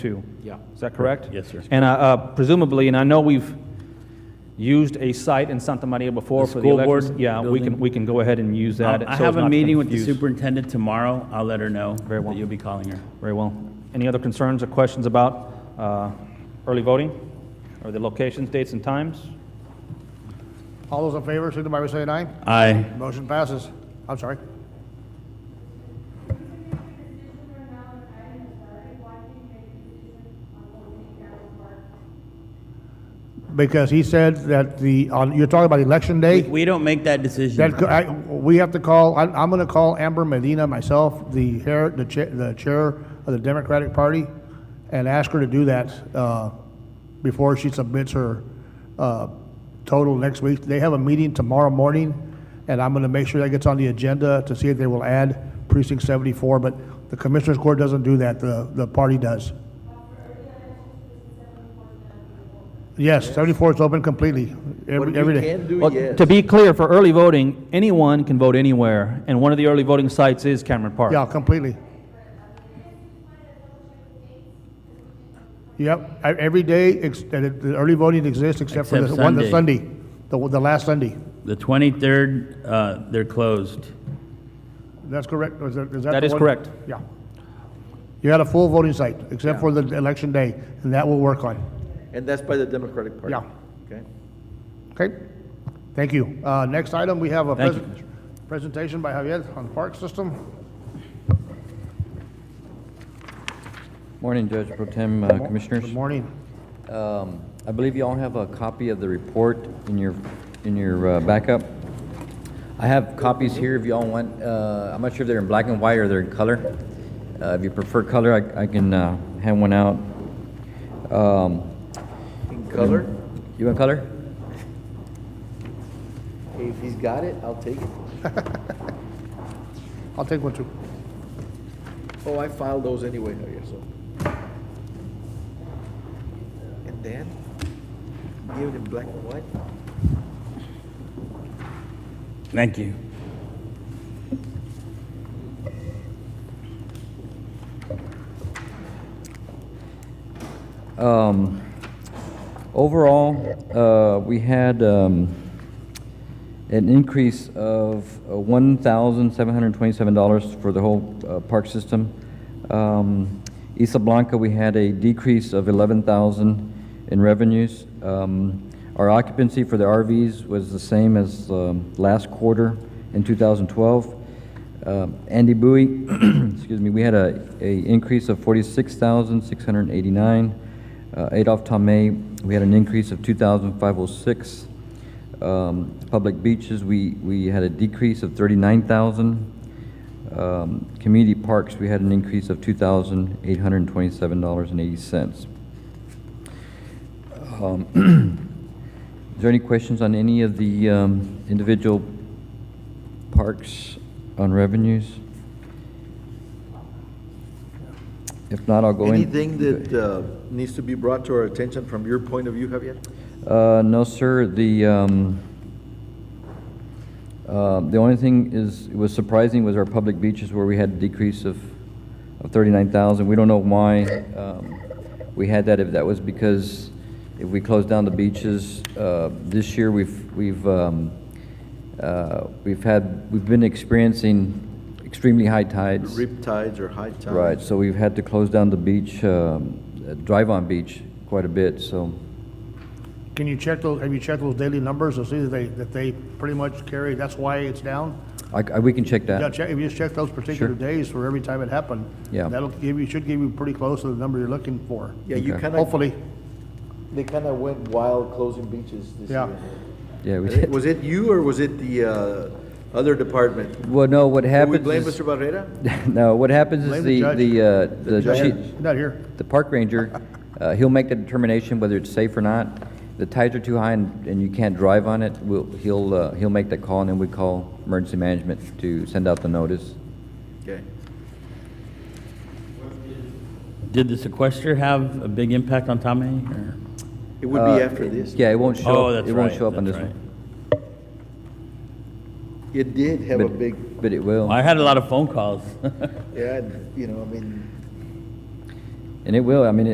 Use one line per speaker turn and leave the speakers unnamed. two.
Yeah.
Is that correct?
Yes, sir.
And uh, uh, presumably, and I know we've used a site in Santa Maria before
The
for the
school
elections.
board
Yeah, we can,
building?
we can go ahead and use that.
I'll- Um, I
so
have
it's
a
not
meeting with the
confused.
superintendent tomorrow. I'll let her know
Very well.
that you'll be calling her.
Very well. Any other concerns or questions about uh, early voting? Or the locations, dates, and times?
All those in favor, signify by saying aye.
Aye.
Motion passes. I'm sorry. Because he said that the, on, you're talking about election
We,
day?
we don't make that
That,
decision.
co- I, we have to call, I, I'm gonna call Amber Medina myself, the hair, the chair, the chair of the Democratic Party, and ask her to do that, uh, before she submits her, uh, total next week. They have a meeting tomorrow morning, and I'm gonna make sure that gets on the agenda to see if they will add precinct seventy-four, but the Commissioners Court doesn't do that, the, the party does. Yes, seventy-four is open completely, every, every day.
Well, To be clear, for early voting, anyone can vote anywhere, and one of the early voting sites is Cameron Park.
Yeah, completely. Yep, e- every day, ex- and it- the early voting exists except for the
Except
one, the
Sunday.
Sunday, the, one- the last Sunday.
The 23rd, uh, they're closed.
That's correct, or is that, is that?
That
the
is
one?
correct.
Yeah. You had a full voting site, except for the election day, and that will work on,
And that's by the Democratic Party?
Yeah.
Okay.
okay? Thank you. Uh, next item, we have a
Thank you,
pres-
Commissioner.
presentation by Javier on park system.
Morning, Judge Pro Tem, uh, Commissioners.
Good morning.
Um, I believe you all have a copy of the report in your, in your uh, backup. I have copies here if you all want. Uh, I'm not sure if they're in black and white or they're in color. Uh, If you prefer color, I I can uh, hand one out. Um,
In color?
You want color?
If he's got it, I'll take it.
I'll take one too.
Oh, I filed those anyway, Javier, so. And then, give it in black and white?
Thank you.
Um, Overall, uh, we had um, an increase of uh, $1,727 for the whole uh, park system. Um, Isla Blanca, we had a decrease of 11,000 in revenues. Um, Our occupancy for the RVs was the same as um, last quarter in 2012. Um, Andy Bowie, excuse me, we had a, a increase of 46,689. Uh, Adolph Tomei, we had an increase of 2,506. Um, Public beaches, we, we had a decrease of 39,000. Um, Community parks, we had an increase of $2,827.80. Um, Is there any questions on any of the um, individual parks on revenues? If not, I'll go in.
Anything that uh, needs to be brought to our attention from your point of view, Javier?
Uh, no, sir, the, um, uh, the only thing is, was surprising was our public beaches where we had a decrease of, of thirty-nine thousand. We don't know why, um, we had that, if that was because if we closed down the beaches, uh, this year, we've, we've, um, uh, we've had, we've been experiencing extremely high tides.
Rip tides or high tides?
Right, so we've had to close down the beach, um, uh, drive-on beach quite a bit, so.
Can you check those, have you checked those daily numbers to see that they, that they pretty much carry, that's why it's down?
I, I- we can check that.
Yeah, check, if you just check those particular
Sure.
days for every time it happened.
Yeah.
That'll give you, should give you pretty close to the number you're looking for.
Yeah, you
Okay.
kind of,
Hopefully,
they kind of went wild closing beaches this
Yeah.
year.
Yeah, we
Eh,
did.
Was it you or was it the uh, other department?
Well, no, what
Can we
happens
blame
is,
Mr. Barrera?
no, what happens
Blame
is
the
the,
judge.
the, uh, the
judge.
chief,
not here.
the park ranger, uh, he'll make the determination whether it's safe or not. The tides are too high and, and you can't drive on it, we'll, he'll, uh, he'll make that call and then we call emergency management to send out the notice.
Okay.
Did the sequester have a big impact on Tommy? or-
It would be after this.
Uh, Yeah, it won't show,
Oh,
up-
that's
it won't
right,
show up on this
that's
one.
right.
It did have a
But-
big,
But it will.
I had a lot of phone calls.
yeah, you know, I mean,
And it will, I mean,